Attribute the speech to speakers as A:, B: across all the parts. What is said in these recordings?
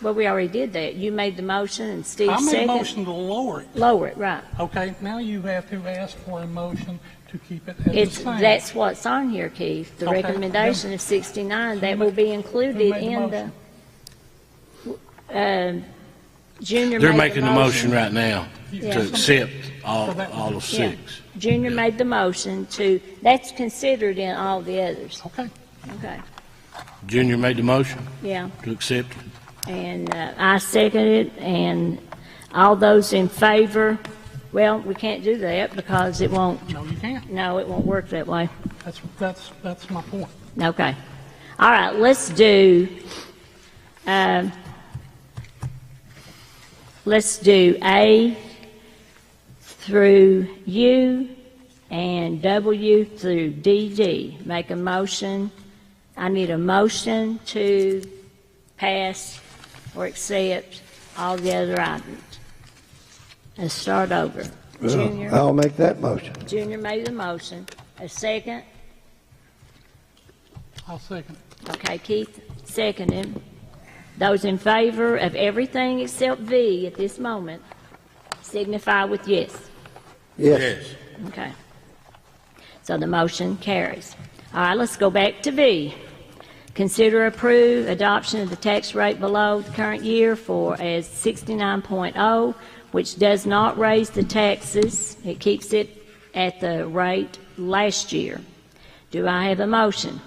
A: Well, we already did that. You made the motion and Steve
B: I made a
A: seconded.
B: motion to lower it,
A: Lower it, right.
B: okay? Now you have to ask for a motion to keep it at the
A: It's,
B: same.
A: that's what's on here, Keith, the
B: Okay.
A: recommendation of 69, that
B: ma-
A: will be
B: who
A: included
B: made the
A: in the,
B: motion?
A: um, Junior made the motion.
C: They're making the motion right now
A: Yeah.
C: to accept
B: So
C: all,
B: that-
C: all of
A: Yeah.
C: six.
A: Junior made the motion to, that's considered in all the others,
B: Okay,
A: okay,
C: Junior made the motion
A: yeah.
C: to accept.
A: And uh, I second it, and all those in favor, well, we can't do that because it won't,
B: no, you can't.
A: no, it won't work that way.
B: That's, that's, that's my point.
A: Okay. All right, let's do, um, let's do A through U and W through DD. Make a motion. I need a motion to pass or accept all the other items. Let's start over. Junior?
D: I'll make that motion.
A: Junior made the motion. A second?
B: I'll second.
A: Okay, Keith, seconded. Those in favor of everything except V at this moment signify with yes.
D: Yes.
A: Okay. So the motion carries. All right, let's go back to V. Consider approve adoption of the tax rate below the current year for as 69.0, which does not raise the taxes. It keeps it at the rate last year. Do I have a motion?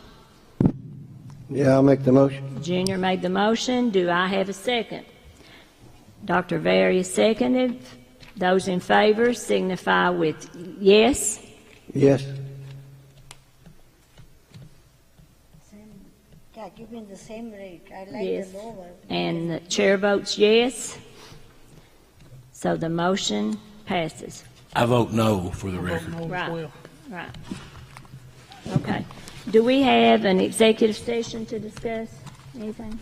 D: Yeah, I'll make the motion.
A: Junior made the motion. Do I have a second? Dr. Varius seconded. Those in favor signify with yes.
D: Yes.
E: Yeah, give me the same rate. I like
A: Yes.
E: the lower.
A: And the chair votes yes. So the motion passes.
C: I vote no for the
B: I'm voting
C: record.
B: no as
A: Right.
B: well.
A: Right. Okay. Do we have an executive session to discuss anything?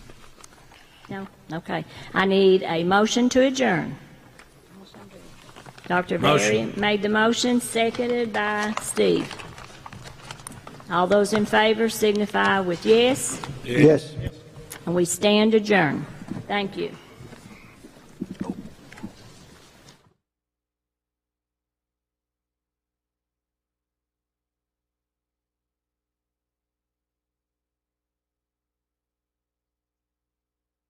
A: No? Okay. I need a motion to adjourn. Dr. Berry
C: Motion.
A: made the motion, seconded by Steve. All those in favor signify with yes,
D: Yes.
A: and we stand adjourned. Thank you.